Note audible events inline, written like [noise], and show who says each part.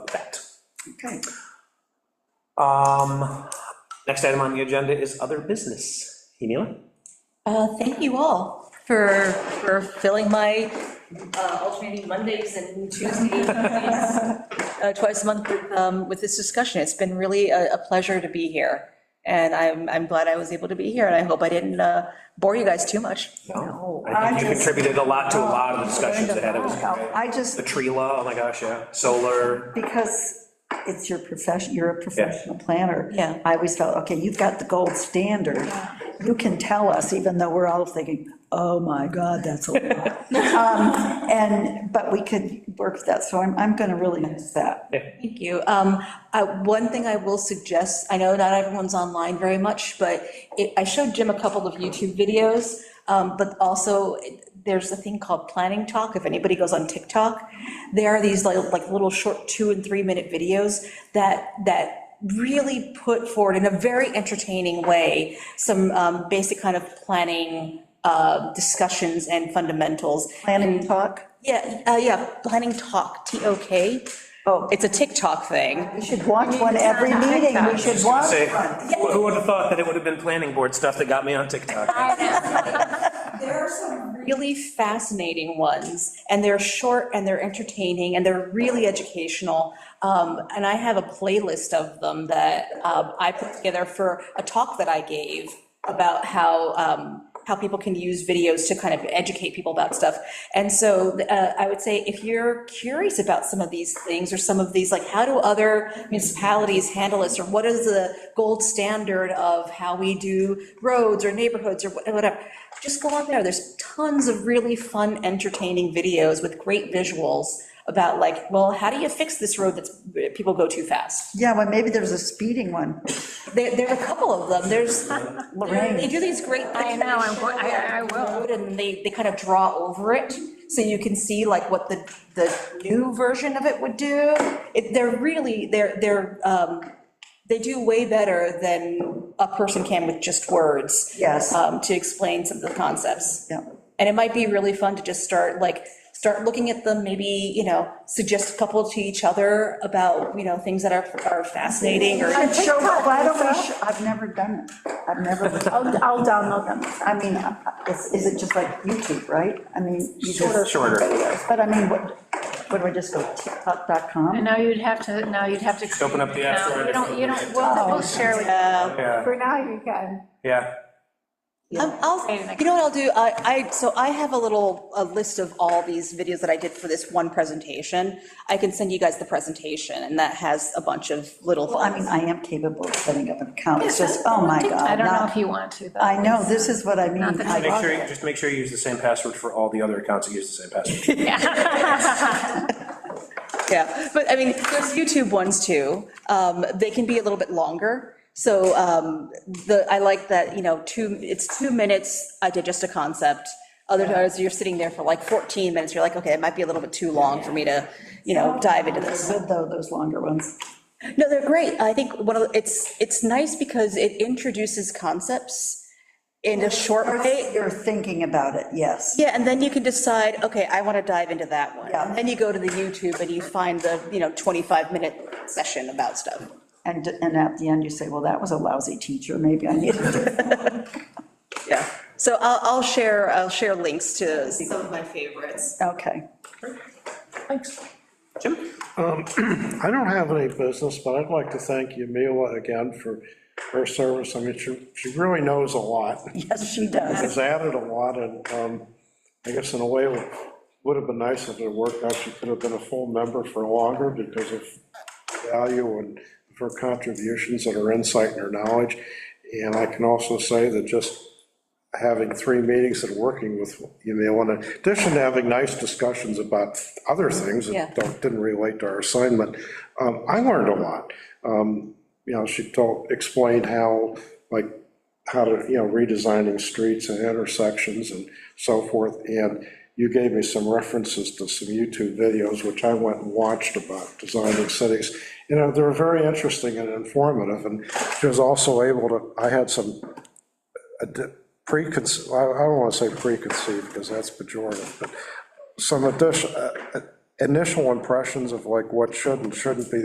Speaker 1: Okay.
Speaker 2: Um, Next item on the agenda is other business. Emila?
Speaker 3: Uh, Thank you all for, for filling my uh, alternating Mondays and Tuesdays uh, twice a month with, um, with this discussion. It's been really a, a pleasure to be here. And I'm, I'm glad I was able to be here, and I hope I didn't uh, bore you guys too much.
Speaker 2: No.
Speaker 1: I
Speaker 2: I Oh, think you
Speaker 1: just-
Speaker 2: contributed a lot to a lot of the discussions ahead of us.
Speaker 1: I just,
Speaker 2: The tree law, oh my gosh, yeah, solar,
Speaker 1: because it's your profession, you're a professional planner.
Speaker 3: Yeah.
Speaker 1: I always felt, okay, you've got the gold standard. You can tell us, even though we're all thinking, oh my God, that's a lot. Um, And, but we could work that, so I'm, I'm gonna really miss that.
Speaker 3: Thank you. Um, uh, One thing I will suggest, I know not everyone's online very much, but it- I showed Jim a couple of YouTube videos, um, but also it- there's a thing called Planning Talk, if anybody goes on TikTok. There are these like, like little short two and three minute videos that, that really put forward in a very entertaining way some um, basic kind of planning uh, discussions and fundamentals.
Speaker 1: Planning talk,
Speaker 3: Yeah, uh, yeah, Planning Talk, T-O-K.
Speaker 1: Oh.
Speaker 3: It's a TikTok thing.
Speaker 1: we should watch one every meeting, we should watch
Speaker 2: say,
Speaker 1: one.
Speaker 2: who who would have thought that it would have been planning board stuff that got me on TikTok?
Speaker 3: There are some really fascinating ones, and they're short, and they're entertaining, and they're really educational. Um, And I have a playlist of them that um, I put together for a talk that I gave about how, um, how people can use videos to kind of educate people about stuff. And so uh, I would say, if you're curious about some of these things, or some of these, like, how do other municipalities handle this, or what is the gold standard of how we do roads or neighborhoods or wha- whatever, just go on there, there's tons of really fun, entertaining videos with great visuals about like, well, how do you fix this road that's, people go too fast?
Speaker 1: Yeah, well, maybe there's a speeding one.
Speaker 3: There, there are a couple of them, there's, they do these great.
Speaker 4: I know, I'm go- I- I- I will.
Speaker 3: road And they, they kind of draw over it, so you can see like what the, the new version of it would do. It, they're really, they're, they're, um, they do way better than a person can with just words.
Speaker 1: Yes.
Speaker 3: Um, to explain some of the concepts.
Speaker 1: Yeah.
Speaker 3: And it might be really fun to just start, like, start looking at them, maybe, you know, suggest a couple to each other about, you know, things that are, are fascinating or.
Speaker 1: Show, why don't we, sh- I've never done it, I've never,
Speaker 4: uh, I'll, I'll download them.
Speaker 1: I mean, uh, is, is it just like YouTube, right? I mean, you
Speaker 2: Shorter.
Speaker 1: just,
Speaker 2: Shorter.
Speaker 1: but I mean, what, what do I just go, tiktok.com?
Speaker 4: No, you'd have to, no, you'd have to.
Speaker 2: Open up the app store
Speaker 4: No,
Speaker 2: and
Speaker 4: You don't, you don't, we'll, we'll share with
Speaker 2: Yeah,
Speaker 4: Uh, For now, you can.
Speaker 2: yeah.
Speaker 3: Um, I'll,
Speaker 4: Okay, next.
Speaker 3: you know what I'll do, I, I, so I have a little, a list of all these videos that I did for this one presentation. I can send you guys the presentation, and that has a bunch of little
Speaker 1: Well, I mean,
Speaker 3: things.
Speaker 1: I am capable of setting up an account, it's just, oh my God.
Speaker 4: I don't know
Speaker 1: not-
Speaker 4: if you want to, though.
Speaker 1: I know, this is what I mean.
Speaker 4: Not that
Speaker 1: I
Speaker 2: Make
Speaker 1: love
Speaker 2: sure, you-
Speaker 1: it.
Speaker 2: just make sure you use the same password for all the other accounts that use the same password.
Speaker 3: Yeah, but I mean, there's YouTube ones too, um, they can be a little bit longer, so, um, the, I like that, you know, two, it's two minutes, I did just a concept. Other times, you're sitting there for like 14 minutes, you're like, okay, it might be a little bit too long for me to, you know, dive into this.
Speaker 1: Good though, those longer ones.
Speaker 3: No, they're great. I think one of, the- it's, it's nice because it introduces concepts in a short way.
Speaker 1: You're thinking about it, yes.
Speaker 3: Yeah, and then you can decide, okay, I want to dive into that one.
Speaker 1: Yeah.
Speaker 3: And Then you go to the YouTube and you find the, you know, 25-minute session about stuff.
Speaker 1: And, and at the end, you say, well, that was a lousy teacher, maybe I need
Speaker 4: [laughs]
Speaker 1: to.
Speaker 3: Yeah. So I'll, I'll share, I'll share links to some of my favorites.
Speaker 1: Okay.
Speaker 2: Jim?
Speaker 5: I don't have any business, but I'd like to thank Yamila again for her service. I mean, she, she really knows a lot,
Speaker 1: Yes, she does.
Speaker 5: has added a lot, and um, I guess in a way, it would have been nice if it worked out, she could have been a full member for longer because of value and her contributions and her insight and her knowledge. And I can also say that just having three meetings and working with Yamila, in addition to having nice discussions about other things
Speaker 3: Yeah.
Speaker 5: that don't- didn't relate to our assignment, um, I learned a lot. Um, You know, she told, explained how, like, how to, you know, redesigning streets and intersections and so forth. And you gave me some references to some YouTube videos, which I went and watched about designing cities. You know, they were very interesting and informative, and she was also able to, I had some preconceived, I I don't want to say preconceived, because that's pejorative, but some addition, uh, uh, initial impressions of like what should and shouldn't be